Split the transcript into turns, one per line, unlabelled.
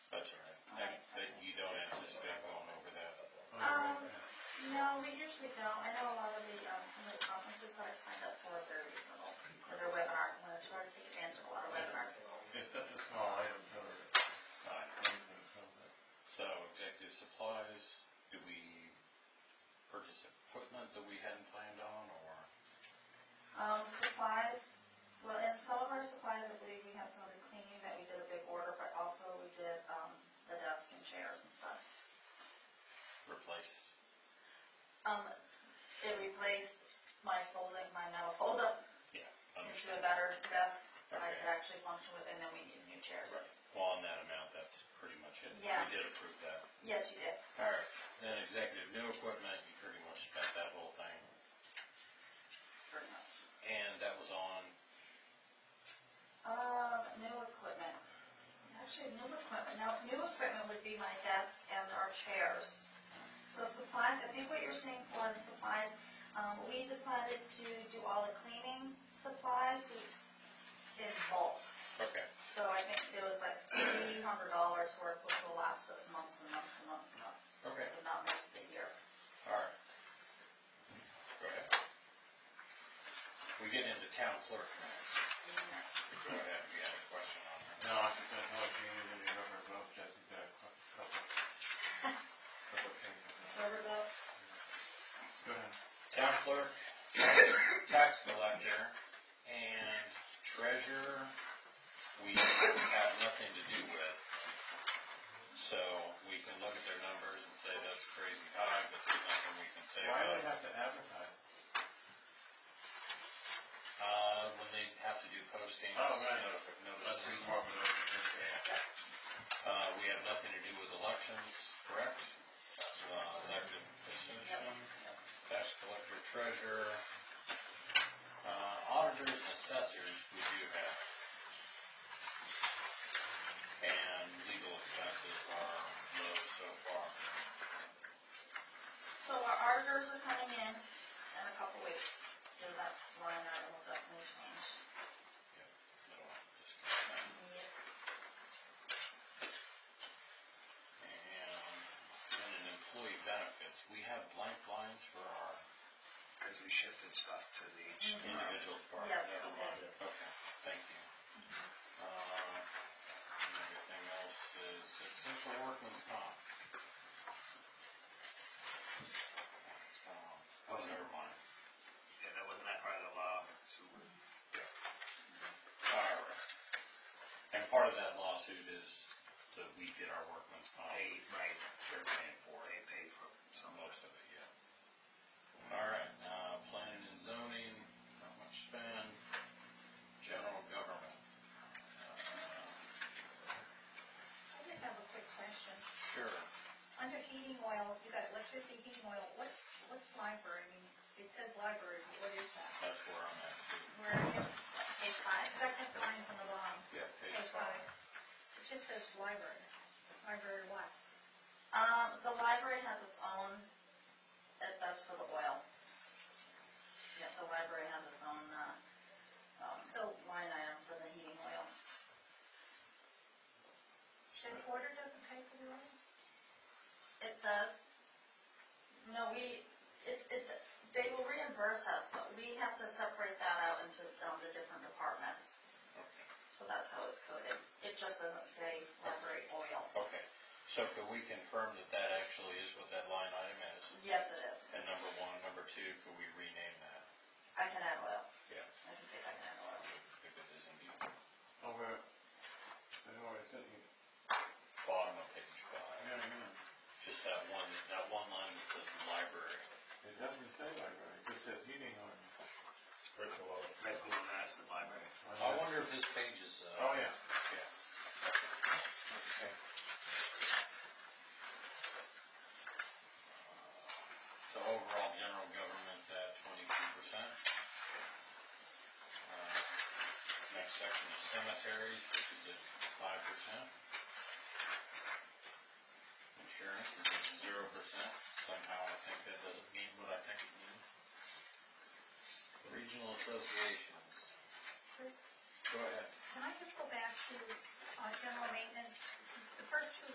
And, but you don't anticipate going over that?
Um, no, we usually don't. I know a lot of the, um, some of the conferences that I've signed up for are very reasonable. for Their webinars, I'm gonna try to take advantage of a lot of webinars.
It's such a small item for So executive supplies, do we purchase equipment that we hadn't planned on, or?
Um, supplies, well, in some of our supplies, I believe we have some of the cleaning that we did a big order, but also we did, um, the desk and chairs and stuff.
replace.
Um, it replaced my folding, my metal fold-up
Yeah.
into a better desk that I could
Okay.
actually function with, and then we needed new chairs.
Right. Well, on that amount, that's pretty much it.
Yeah.
We did approve that.
Yes, you did.
All right, then executive new equipment, you pretty much spent that whole thing,
Pretty much.
and that was on,
Um, new equipment. Actually, new equipment, now, new equipment would be my desk and our chairs. So supplies, I think what you're saying for the supplies, um, we decided to do all the cleaning supplies in bulk.
okay,
So I think it was like three hundred dollars worth, which will last us months and months and months and months,
okay,
but not most of the year.
all right. Go ahead. We get into town clerk minutes. Go ahead, you had a question on that.
No, I think that's what you needed in your rubber glove, Jessica, a cou- couple, couple things.
Remember that?
Go ahead.
Town clerk, tax collector, and treasurer, we have nothing to do with. So we can look at their numbers and say that's crazy high, but there's nothing we can say
Why do
about
we
it.
have to advertise?
Uh, when they have to do postings,
Oh, right.
notif-
That's
notices.
pretty far below the fifty.
Uh, we have nothing to do with elections, correct? That's, uh, elected position, tax collector, treasurer, uh, auditors and assessors, we do have. And legal expenses are low so far.
So our auditors are coming in in a couple weeks, so that line item will definitely change.
Middle one, just kind of- And then in employee benefits, we have blank lines for our
Because we shifted stuff to the each department.
individual part.
Yes,
Never
we did. Mm-hmm.
mind. Okay, thank you. Uh, and Everything else is, except for workman's comp. It's gone. Oh,
Mm-hmm.
never mind.
Yeah, that wasn't that part of the law, so we
All right. And part of that lawsuit is that we get our workman's comp,
paid, right,
they're paying for it.
they paid for some of it.
Most of it, yeah. All right, uh, planning and zoning, not much spend, general government. Uh,
I just have a quick question.
Sure,
Under heating oil, you got electricity, heating oil, what's, what's library? I mean, It says library, but what is that?
that's where I'm at too.
Where, are you? page five, second line from the bottom,
Yeah, page
Page
five.
five. it just says library. Library what?
Um, the library has its own, that, that's for the oil. Yeah, the library has its own, uh, um,
So-
line item for the heating oil.
Shed quarter doesn't pay for the oil?
It does. No, we, it, it, they will reimburse us, but we have to separate that out into, um, the different departments.
Okay.
So that's how it's coded. It just doesn't say library oil.
Okay, so could we confirm that that actually is what that line item is?
Yes, it is.
And number one, number two, could we rename that?
I can add oil.
Yeah.
I can say I can add oil.
If it is indeed
Over, I don't know where it's at, you,
bottom of page five,
yeah, yeah.
just that one, that one line that says library.
It doesn't say library, it just says heating on.
Right below that is the library.
I wonder if this page is, uh.
Oh, yeah.
So overall, general government's at twenty-two percent. Uh, Next section is cemeteries, which is at five percent. Insurance is at zero percent, somehow I think that doesn't mean what I think it means. Regional associations,
Chris,
go ahead.
can I just go back to, uh, general maintenance? The first two